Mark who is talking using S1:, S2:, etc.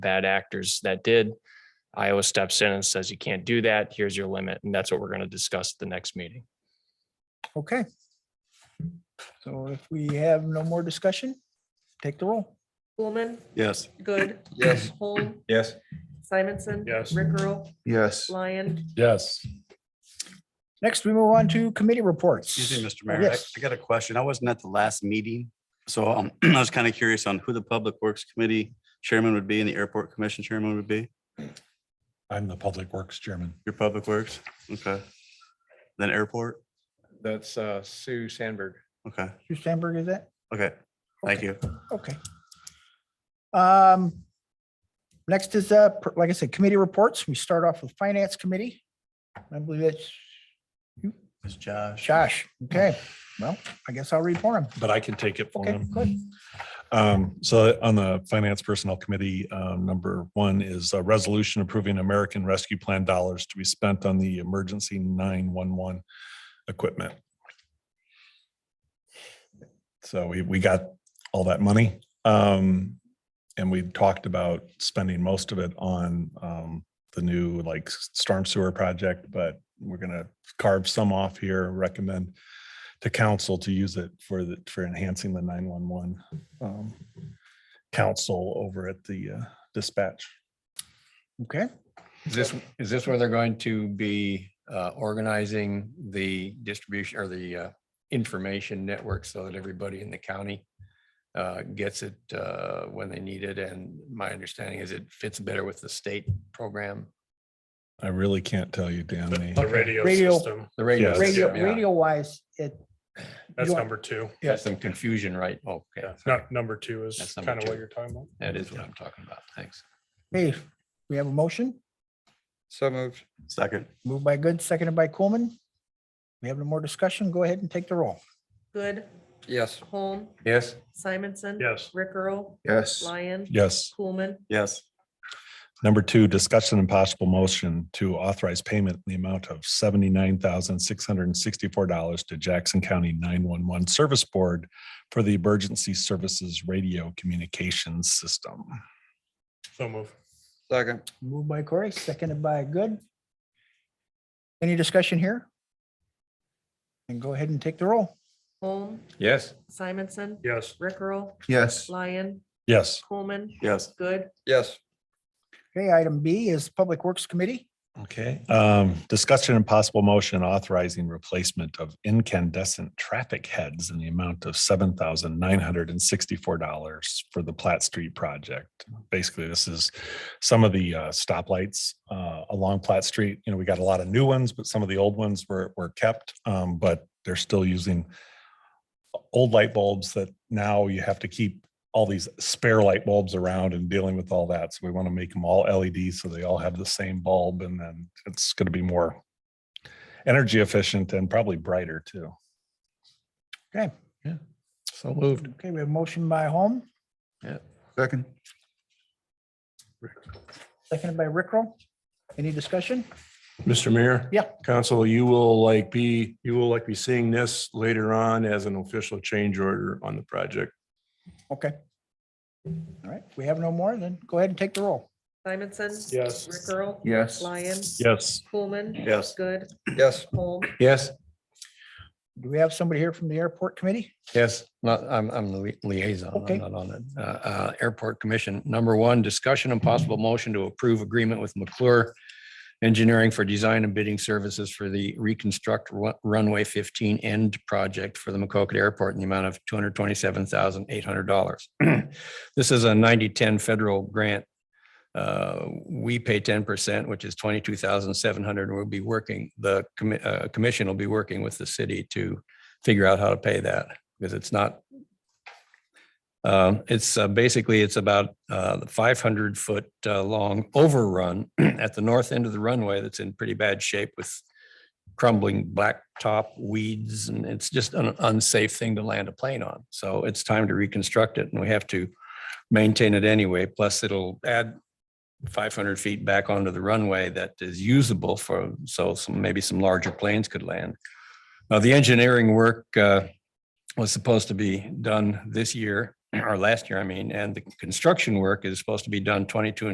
S1: bad actors that did. Iowa steps in and says, you can't do that. Here's your limit. And that's what we're going to discuss at the next meeting.
S2: Okay. So if we have no more discussion, take the roll.
S3: Coolman,
S4: Yes.
S3: Good,
S4: Yes.
S3: Holm,
S4: Yes.
S3: Simonson.
S4: Yes.
S3: Rick Earl,
S4: Yes.
S3: Lyon.
S4: Yes.
S2: Next, we move on to committee reports.
S4: Excuse me, Mr.
S2: Oh,
S4: Mayor, I-
S2: yes.
S4: I got a question. I wasn't at the last meeting, so um, I was kind of curious on who the Public Works Committee Chairman would be and the Airport Commission Chairman would be.
S5: I'm the Public Works Chairman.
S4: Your Public Works, okay. Then Airport,
S6: That's uh, Sue Sandberg.
S4: okay,
S2: Sue Sandberg, is that?
S4: okay, thank you.
S2: Okay. Um, next is, uh, per- like I said, committee reports. We start off with Finance Committee. I believe that's
S4: It's Josh.
S2: Josh. Okay, well, I guess I'll read for him.
S5: but I can take it for
S2: Okay,
S5: him.
S2: good.
S5: Um, So on the Finance Personnel Committee, um, number one is a resolution approving American Rescue Plan dollars to be spent on the emergency 911 equipment. So we, we got all that money. um, And we talked about spending most of it on um, the new like storm sewer project, but we're going to carve some off here, recommend to council to use it for the, for enhancing the nine-one-one council um, over at the uh, dispatch.
S2: Okay,
S6: Is this, is this where they're going to be uh, organizing the distribution or the uh, information network so that everybody in the county uh, gets it uh, when they need it? And my understanding is it fits better with the state program,
S5: I really can't tell you, Dan.
S7: The radio
S2: Radio-
S7: system,
S6: the radio.
S5: Yes.
S2: radio,
S6: system, yeah.
S2: radio wise, it.
S7: that's
S2: you don't-
S7: number two.
S6: Yeah, some confusion, right? Okay,
S7: Yeah, Not number two is
S6: That's number
S7: kind of
S6: two.
S7: what you're talking about.
S6: that is what I'm talking about. Thanks.
S2: Hey, we have a motion,
S8: So moved.
S4: Second,
S2: moved by Good, seconded by Coolman. We have no more discussion. Go ahead and take the roll.
S3: Good,
S8: Yes.
S3: Holm,
S6: Yes.
S3: Simonson.
S7: Yes,
S3: Rick Earl,
S8: Yes.
S3: Lyon.
S5: Yes.
S3: Coolman,
S4: yes,
S5: Number two, discussion and possible motion to authorize payment in the amount of seventy-nine thousand, six hundred and sixty-four dollars to Jackson County nine-one-one Service Board for the Emergency Services Radio Communications System.
S7: so move.
S8: Second.
S2: Moved by Corey, seconded by Good. Any discussion here? And go ahead and take the roll.
S3: Holm,
S6: Yes.
S3: Simonson.
S7: Yes,
S3: Rick Earl,
S8: Yes.
S3: Lyon,
S5: Yes.
S3: Coolman,
S4: yes.
S3: Good,
S8: Yes.
S2: Okay, item B is Public Works Committee.
S5: Okay, um, discussion and possible motion authorizing replacement of incandescent traffic heads in the amount of seven thousand nine hundred and sixty-four dollars for the Platt Street project. Basically, this is some of the uh, stoplights uh, along Platt Street. You know, we got a lot of new ones, but some of the old ones were, were kept, um, but they're still using old light bulbs that now you have to keep all these spare light bulbs around and dealing with all that. So we want to make them all LED so they all have the same bulb and then it's going to be more energy efficient and probably brighter too.
S2: Okay.
S6: Yeah. So moved.
S2: Okay, we have a motion by Home,
S8: Second.
S2: seconded by Rickrell. Any discussion?
S9: Mr. Mayor?
S2: Yeah.
S9: Council, you will like be, you will like be seeing this later on as an official change order on the project.
S2: Okay. All right, we have no more, then go ahead and take the roll.
S3: Simonson.
S7: Yes.
S3: Rick Earl,
S8: Yes.
S3: Lyon,
S5: Yes.
S3: Coolman.
S4: Yes.
S3: Good,
S8: Yes.
S3: Holm,
S6: Yes.
S2: Do we have somebody here from the Airport Committee?
S6: Yes, not, I'm, I'm the li- liaison,
S2: Okay.
S6: I'm not on the, uh, uh, Airport Commission. Number one, discussion and possible motion to approve agreement with McClure Engineering for Design and Bidding Services for the Reconstruct Ru- Runway fifteen End Project for the McCoqueta Airport in the amount of two hundred twenty-seven thousand eight hundred dollars. This is a 90-10 federal grant. Uh, We pay ten percent, which is twenty-two thousand seven hundred, and we'll be working, the commi- uh, commission will be working with the city to figure out how to pay that because it's not. Um, It's uh, basically, it's about uh, the 500 foot uh, long overrun at the north end of the runway that's in pretty bad shape with crumbling blacktop weeds, and it's just an unsafe thing to land a plane on. So it's time to reconstruct it, and we have to maintain it anyway. Plus, it'll add 500 feet back onto the runway that is usable for, so some, maybe some larger planes could land. Uh, The engineering work uh, was supposed to be done this year, or last year, I mean, and the construction work is supposed to be done 22 and